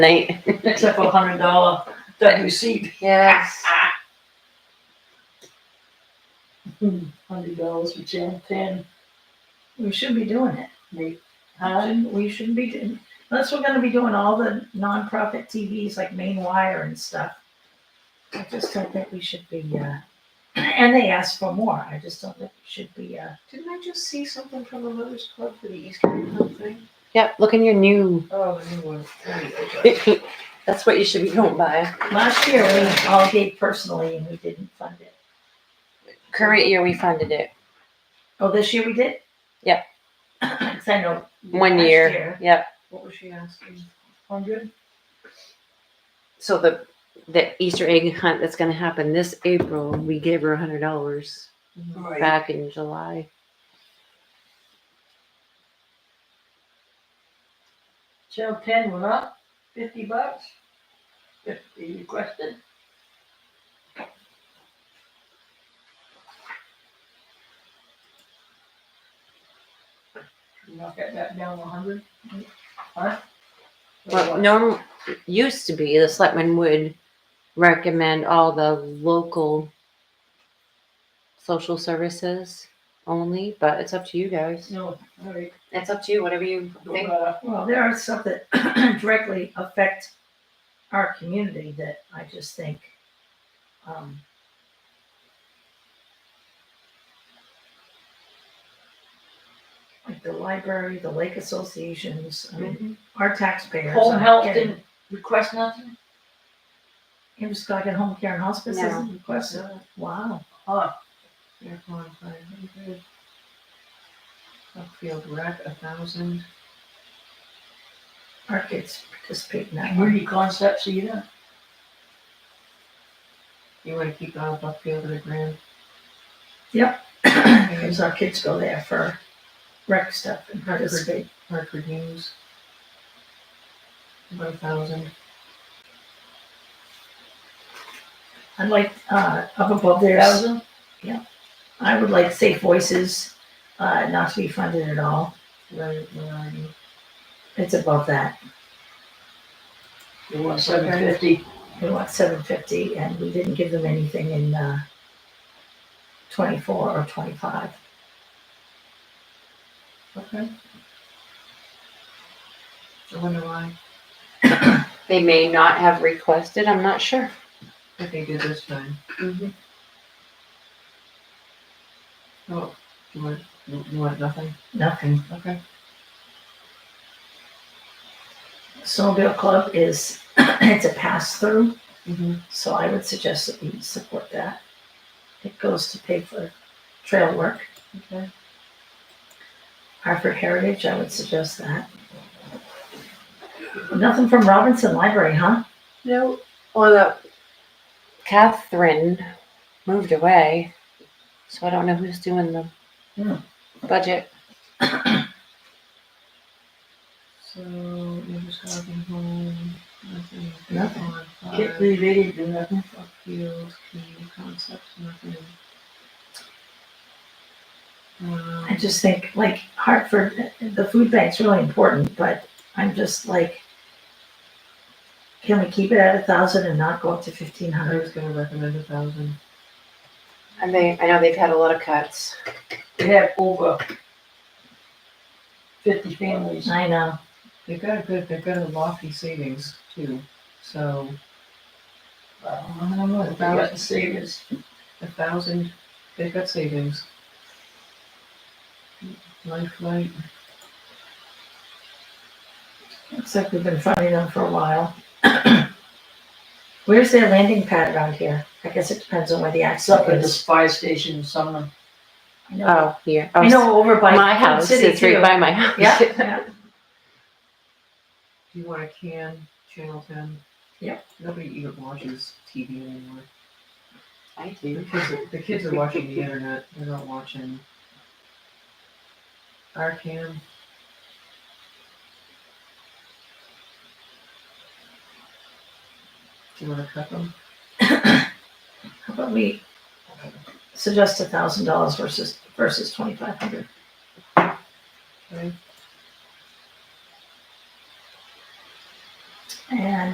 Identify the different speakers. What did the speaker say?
Speaker 1: night.
Speaker 2: except for a hundred dollar WC.
Speaker 1: Yes.
Speaker 2: Hundred dollars for ten, ten,
Speaker 3: We should be doing it.
Speaker 2: maybe, huh?
Speaker 3: Shouldn't- We shouldn't be doing, unless we're gonna be doing all the nonprofit TVs like Main Wire and stuff. I just don't think we should be, uh, and they ask for more. I just don't think we should be, uh,
Speaker 4: Didn't I just see something from the Mothers Club for the Easter Club thing?
Speaker 1: Yep, look in your new.
Speaker 4: Oh, the new one. There you go.
Speaker 1: That's what you should be going by.
Speaker 3: last year we all gave personally and we didn't fund it.
Speaker 1: Current year, we funded it.
Speaker 3: Oh, this year we did?
Speaker 1: Yep.
Speaker 3: 'Cause I know.
Speaker 1: One
Speaker 3: last
Speaker 1: year. Yep.
Speaker 4: What was she asking?
Speaker 2: Hundred?
Speaker 1: So the the Easter egg hunt that's going to happen this April, we gave her a hundred dollars
Speaker 2: Right.
Speaker 1: back in July.
Speaker 2: Channel ten went up, fifty bucks. Fifty requested. Knock that back down a hundred? Huh?
Speaker 1: Well, norm used to be the selectmen would recommend all the local social services only, but it's up to you guys.
Speaker 2: No, all right,
Speaker 1: It's up to you, whatever you
Speaker 2: go
Speaker 1: think.
Speaker 2: uh,
Speaker 3: Well, there are some that directly affect our community that I just think, um, like the library, the lake associations, I mean, our taxpayers.
Speaker 2: Home
Speaker 3: are
Speaker 2: health
Speaker 3: getting-
Speaker 2: didn't request nothing?
Speaker 3: It was like at home care and hospice
Speaker 1: No.
Speaker 3: isn't requested. Wow.
Speaker 2: Oh,
Speaker 4: Air qualifying, very good. Upfield rec, a thousand.
Speaker 3: Our kids participate in that.
Speaker 2: community concepts either?
Speaker 4: You wanna keep up upfield at a grand?
Speaker 3: Because our kids go there for rec stuff and participate.
Speaker 4: Hartford News. About a thousand.
Speaker 3: I'd like, uh, up above there.
Speaker 2: Thousand?
Speaker 3: I would like Safe Voices, uh, not to be funded at all.
Speaker 4: Where, where are you?
Speaker 3: It's above that.
Speaker 2: You want seven fifty?
Speaker 3: We want seven fifty and we didn't give them anything in, uh, twenty-four or twenty-five.
Speaker 4: Okay. I wonder why,
Speaker 1: They may not have requested, I'm not sure.
Speaker 4: what they did this time. Oh, you want, you you want nothing?
Speaker 3: Nothing.
Speaker 4: Okay.
Speaker 3: Snowmobile Club is, it's a pass-through,
Speaker 4: Mm-hmm.
Speaker 3: so I would suggest that we support that. It goes to pay for trail work.
Speaker 4: Okay.
Speaker 3: Hartford Heritage, I would suggest that. Nothing from Robinson Library, huh?
Speaker 1: No, well, the Catherine moved away, so I don't know who's doing the
Speaker 2: Hmm.
Speaker 1: budget.
Speaker 4: So, you're just having home, nothing.
Speaker 3: Nothing.
Speaker 4: Bonfire,
Speaker 2: Get related to nothing.
Speaker 4: Upfield, community concepts, nothing.
Speaker 3: I
Speaker 4: Um,
Speaker 3: just think like Hartford, the food bank's really important, but I'm just like, can we keep it at a thousand and not go up to fifteen
Speaker 4: I
Speaker 3: hundred?
Speaker 4: was gonna recommend a thousand.
Speaker 1: And they, I know they've had a lot of cuts.
Speaker 2: They have over fifty families.
Speaker 3: I know.
Speaker 4: They've got a good, they've got a lofty savings too, so.
Speaker 2: Wow.
Speaker 4: I don't know, a
Speaker 2: They got
Speaker 4: thousand,
Speaker 2: the savers.
Speaker 4: a thousand, they've got savings. Lifelight,
Speaker 3: Looks like we've been funding them for a while. Where's their landing pad around here? I guess it depends on where the
Speaker 2: It's up
Speaker 3: accident
Speaker 2: at this
Speaker 3: is.
Speaker 2: fire station in Sumner.
Speaker 3: I know,
Speaker 1: Oh, here.
Speaker 3: I know over by.
Speaker 1: my
Speaker 3: Quad
Speaker 1: house.
Speaker 3: City,
Speaker 1: It's right
Speaker 3: too.
Speaker 1: by my house.
Speaker 3: Yeah, yeah.
Speaker 4: do you want a can, channel ten?
Speaker 3: Yep.
Speaker 4: Nobody even watches TV anymore.
Speaker 1: I
Speaker 4: The
Speaker 1: do.
Speaker 4: kids are, the kids are watching the internet, they're not watching. Our can, do you wanna cut them?
Speaker 3: How about we suggest a thousand dollars versus, versus twenty-five hundred?
Speaker 4: Okay.